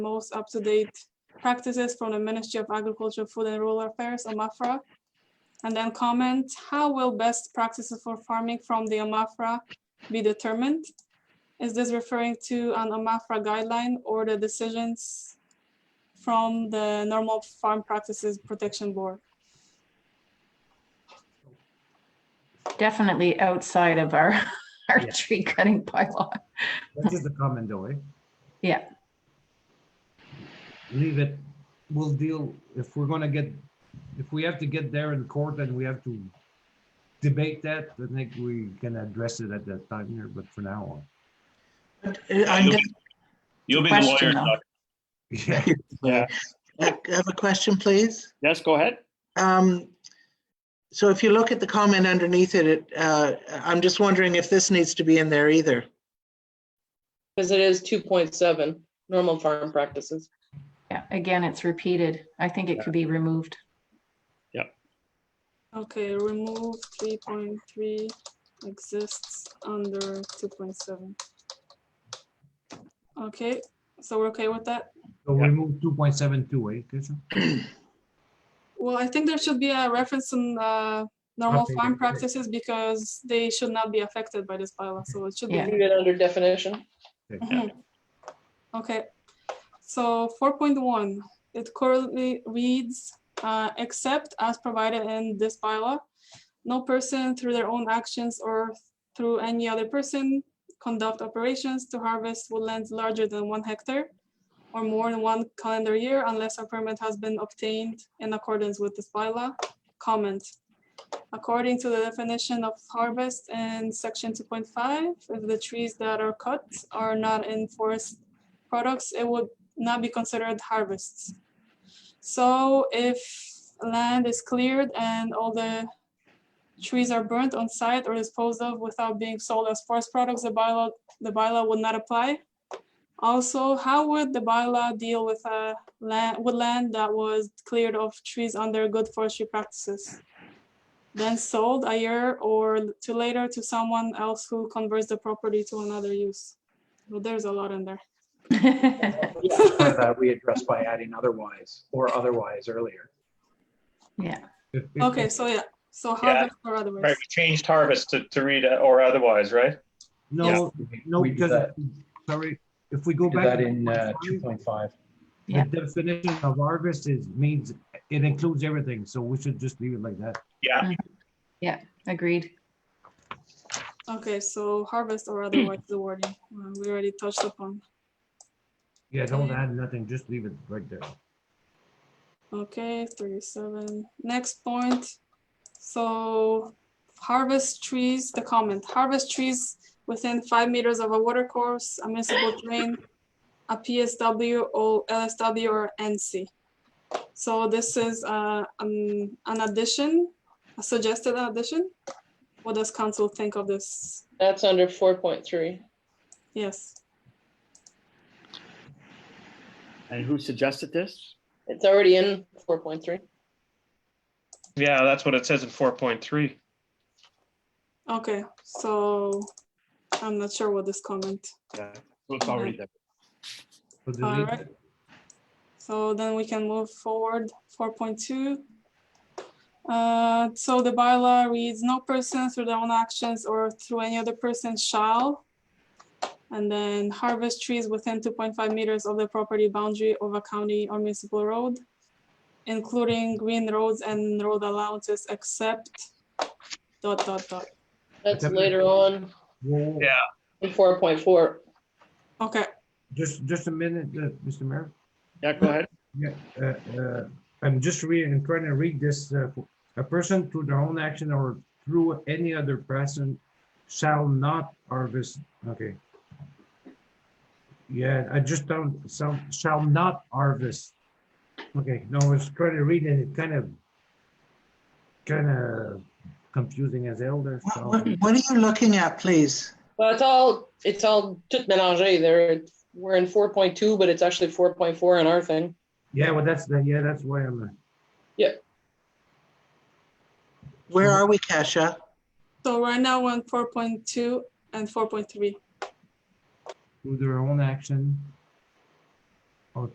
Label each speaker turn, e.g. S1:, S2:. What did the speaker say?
S1: most up-to-date practices from the Ministry of Agriculture, Food and Rural Affairs, AMAFRA. And then comment, how will best practices for farming from the AMAFRA be determined? Is this referring to an AMAFRA guideline or the decisions from the Normal Farm Practices Protection Board?
S2: Definitely outside of our, our
S3: Yeah.
S2: tree cutting bylaw.
S3: That is the comment though, eh?
S2: Yeah.
S3: Leave it. We'll deal, if we're gonna get, if we have to get there in court and we have to debate that, I think we can address it at that time here, but for now on.
S4: But, uh, I
S5: You'll
S4: guess-
S5: You'll be the lawyer.
S2: Question, though.
S5: Doc.
S3: Yeah,
S5: Yeah.
S4: I have a question, please.
S5: Yes, go ahead.
S4: Um, So if you look at the comment underneath it, it, uh, I'm just wondering if this needs to be in there either.
S6: Because it is two point seven, normal farm practices.
S2: Yeah, again, it's repeated. I think it could be removed.
S1: Okay, remove three point three exists under two point seven. Okay, so we're okay with that?
S3: so we move two point seven two, eh, Christian?
S1: Well, I think there should be a reference in uh, normal
S3: Okay,
S1: farm
S3: great.
S1: practices because they should not be affected by this bylaw, so it should be.
S2: Yeah.
S1: legal.
S6: Leave it under definition.
S1: Mhm. Okay, so four point one, it currently reads, uh, except as provided in this bylaw. No person through their own actions or through any other person conduct operations to harvest woodlands larger than one hectare. Or more than one calendar year unless a permit has been obtained in accordance with this bylaw. Comment. According to the definition of harvest in section two point five, if the trees that are cut are not in forest products, it would not be considered harvests. So if land is cleared and all the trees are burnt on site or disposed of without being sold as forest products, the bylaw, the bylaw would not apply. Also, how would the bylaw deal with a land, woodland that was cleared of trees under good forestry practices? then sold a year or l- to later to someone else who converts the property to another use. Well, there's a lot in there.
S2: Yeah,
S7: Or that uh, we addressed by adding otherwise or otherwise earlier.
S3: If- if-
S1: Okay, so yeah, so
S5: Yeah.
S1: harvest or
S5: Right,
S1: otherwise.
S5: we changed harvest to, to read uh, or otherwise, right?
S3: No, no,
S7: We did
S3: because,
S7: that-
S3: sorry, if we go
S7: we did
S3: back.
S7: that
S3: to
S7: in uh,
S3: 2.5,
S7: two point five.
S2: Yeah.
S3: The definition of harvest is, means, it includes everything, so we should just leave it like that.
S5: Yeah,
S2: agreed.
S1: Okay, so harvest or otherwise, the wording, uh, we already touched upon.
S3: Yeah, don't add nothing, just leave it right there.
S1: Okay, thirty-seven, next point. So harvest trees, the comment, harvest trees within five meters of a watercourse, a municipal drain, a PSW or LSW or NC. So this is uh, um, an addition, a suggested addition. What does council think of this?
S6: That's under four point three.
S1: Yes,
S8: And who suggested this?
S6: It's already in four point three.
S9: Yeah, that's what it says in four point three.
S1: okay, so I'm not sure what this comment.
S8: Yeah, so it's already there.
S3: So delete
S1: All
S3: it.
S1: right. So then we can move forward, four point two. Uh, so the bylaw reads, no person through their own actions or through any other person shall. And then harvest trees within two point five meters of the property boundary of a county or municipal road. Including green roads and road allowances except dot dot dot.
S6: That's
S3: Okay.
S6: later on
S3: Whoa, whoa,
S9: Yeah.
S6: in four point four.
S1: Okay,
S3: Just, just a minute, uh, Mr. Mayor.
S8: Yeah, go ahead.
S3: Yeah, uh, uh, I'm just reading, I'm trying to read this. uh, A person through their own action or through any other person shall not harvest, okay. Yeah, I just don't, shall, shall not harvest. Okay, no, I was trying to read it, it kind of, kind of confusing as hell there.
S4: What,
S3: so-
S4: what what are you looking at, please?
S6: Well, it's all, it's all tout mélangé there. It's- We're in four point two, but it's actually four point four in our thing.
S3: Yeah, well, that's, the- yeah, that's why I'm, uh,
S4: Where are we, Kasia?
S1: so right now we're on four point two and four point three.
S3: through their own action